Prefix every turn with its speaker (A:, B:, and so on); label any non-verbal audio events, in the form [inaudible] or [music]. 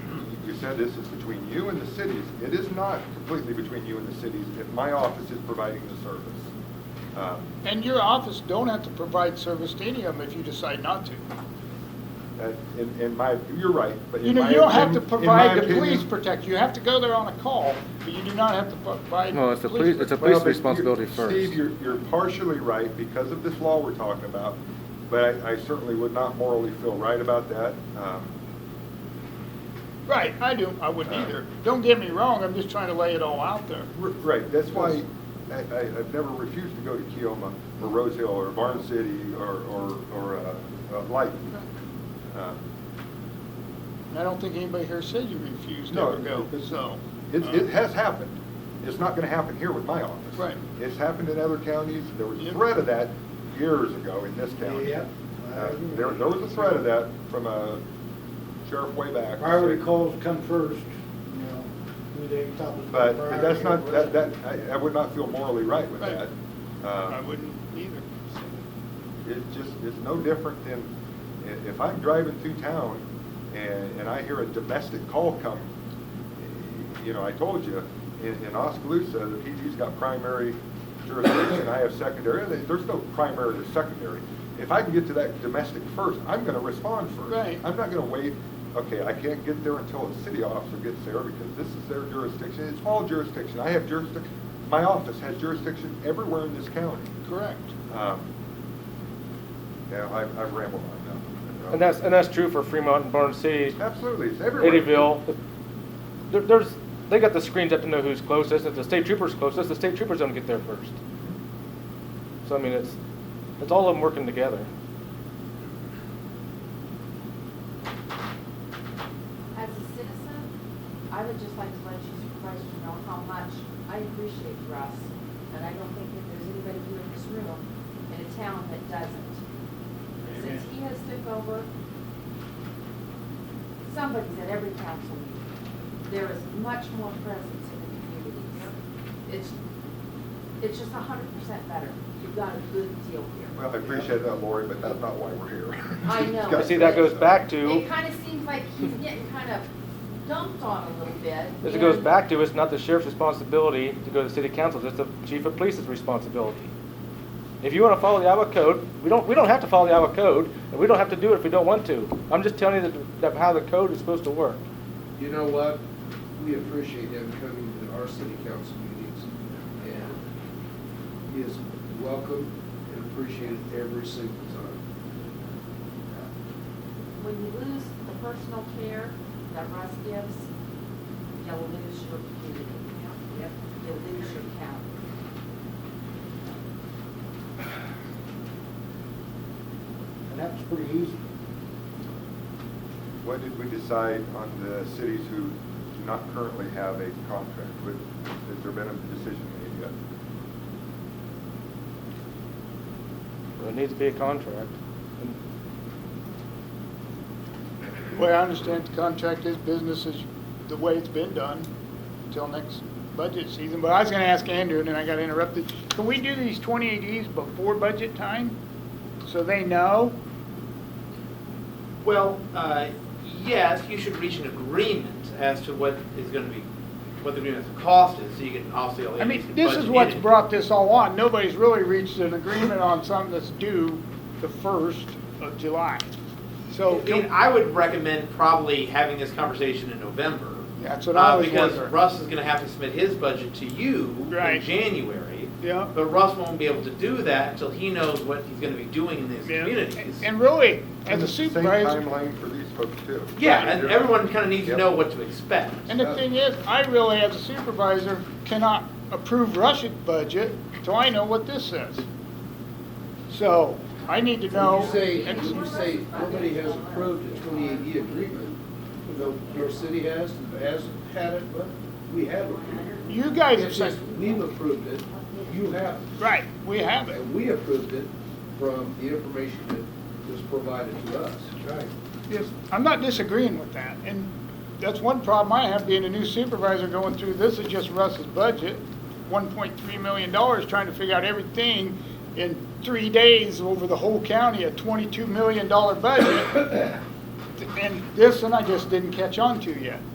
A: said this is between you and the cities. It is not completely between you and the cities. It- My office is providing the service. Um,
B: And your office don't have to provide service to any of them if you decide not to.
A: that- In, in my, you're right, but
B: You
A: in
B: know,
A: my
B: you don't have to
A: opinion- in my
B: provide the police
A: opinion-
B: protection. You have to go there on a call, but you do not have to provide.
C: Well, it's the police- it's a
B: protection.
A: Well, but you-
C: responsibility first.
A: Steve, you're, you're partially right because of this law we're talking about, but I I certainly would not morally feel right about that. Um,
B: Right, I do. I wouldn't either. Don't get me wrong, I'm just trying to lay it all out there.
A: r- Right, that's why I, I, I've never refused to go to Keoma or Rose Hill or Barn City or, or, or uh, uh, Lighton. Um,
B: And I don't think anybody here said you refused to
A: No,
B: ever go,
A: it's-
B: so.
A: It,
B: uh,
A: it has happened. It's not gonna happen here with my office.
B: Right.
A: It's happened in other counties. There was a
B: Yep.
A: threat of that years ago in this county.
D: Yep.
A: Uh, There, there was a threat of that from a sheriff way back.
D: Priority calls come first, you know, who they thought was.
A: But
D: priority
A: but that's not,
D: over
A: that, that, I, I would not feel morally right with
B: Right.
A: that.
B: I
A: Uh,
B: wouldn't either. so.
A: It's just, it's no different than, i- if I'm driving through town and, and I hear a domestic call come, you know, I told you, in, in Oskaloosa, the PD's got primary jurisdiction, I have secondary, There- there's no primary or secondary. If I can get to that domestic first, I'm gonna respond first.
B: Right.
A: I'm not gonna wait, okay, I can't get there until a city officer gets there, because this is their jurisdiction, it's all jurisdiction, I have jurisdiction, my office has jurisdiction everywhere in this county.
B: Correct.
A: Um, Yeah, I- I've rambled on that.
C: And that's, and that's true for Fremont and Barn City,
A: Absolutely, it's everywhere.
C: Eddyville. There, there's, they got the screens up to know who's closest. If the state trooper's closest, the state troopers don't get there first. So I mean, it's, it's all of them working together.
E: As a citizen, I would just like to let you supervisors know how much I appreciate Russ, and I don't think that there's anybody here in this room in a town that doesn't. Since he has took over, somebody's at every council meeting. There is much more presence in the communities. It's, it's just a hundred percent better. You've got a good deal here.
A: Well, I appreciate that, Lori, but that's not why we're here. [laughs]
E: I know.
A: Got-
C: You see, that goes back to,
E: It kind of seems like he's getting kind of dumped on a little bit.
C: as it goes
E: and-
C: back to, it's not the sheriff's responsibility to go to the city council, it's the chief of police's responsibility. If you wanna follow the Iowa code, we don't, we don't have to follow the Iowa code, and we don't have to do it if we don't want to. I'm just telling you that, that how the code is supposed to work.
F: You know what? We appreciate him coming to our city council meetings, and he is welcome and appreciated every single time.
E: When you lose the personal care that Russ gives, you lose your community. You lose your county.
D: And that was pretty easy.
A: What did we decide on the cities who do not currently have a contract with? Has there been a decision made yet?
C: There needs to be a contract. And
B: The way I understand the contract is business is the way it's been done until next budget season. But I was gonna ask Andrew, and then I got interrupted. Can we do these 28Es before budget time? So they know?
G: Well, uh, yes, you should reach an agreement as to what is going to be, what the agreement's cost is, so you can obviously.
B: I mean, this is what's brought this all on. Nobody's really reached an agreement on something that's due the first of July.
G: So,
B: So,
G: I mean, I would recommend probably having this conversation in November.
B: That's what I
G: uh,
B: was
G: Because
B: wondering.
G: Russ is going to have to submit his budget to you
B: Right.
G: in January.
B: yeah.
G: But Russ won't be able to do that until he knows what he's going to be doing in these
B: yeah.
G: communities.
B: And really, as
A: And
B: a
A: it's the same
B: supervisor,
A: Timeline for these folks too.
G: Yeah, and
A: You're-
G: everyone kind of needs to
A: Yep.
G: know what to expect.
B: and the thing is, I really, as a supervisor, cannot approve Russia's budget till I know what this says. So, I need to know.
F: You say,
B: and-
F: you say nobody has approved a twenty-eight E agreement, though your city has, has had it, but we have approved it.
B: You guys have
F: It's just,
B: said,
F: we've approved it, you haven't.
B: right, we have it.
F: And we approved it from the information that was provided to us.
D: Right.
B: Yes, I'm not disagreeing with that, and that's one problem I have being a new supervisor going through, this is just Russ's budget, one point three million dollars, trying to figure out everything in three days over the whole county, a [coughs] twenty-two million dollar budget. And this one I just didn't catch on to yet.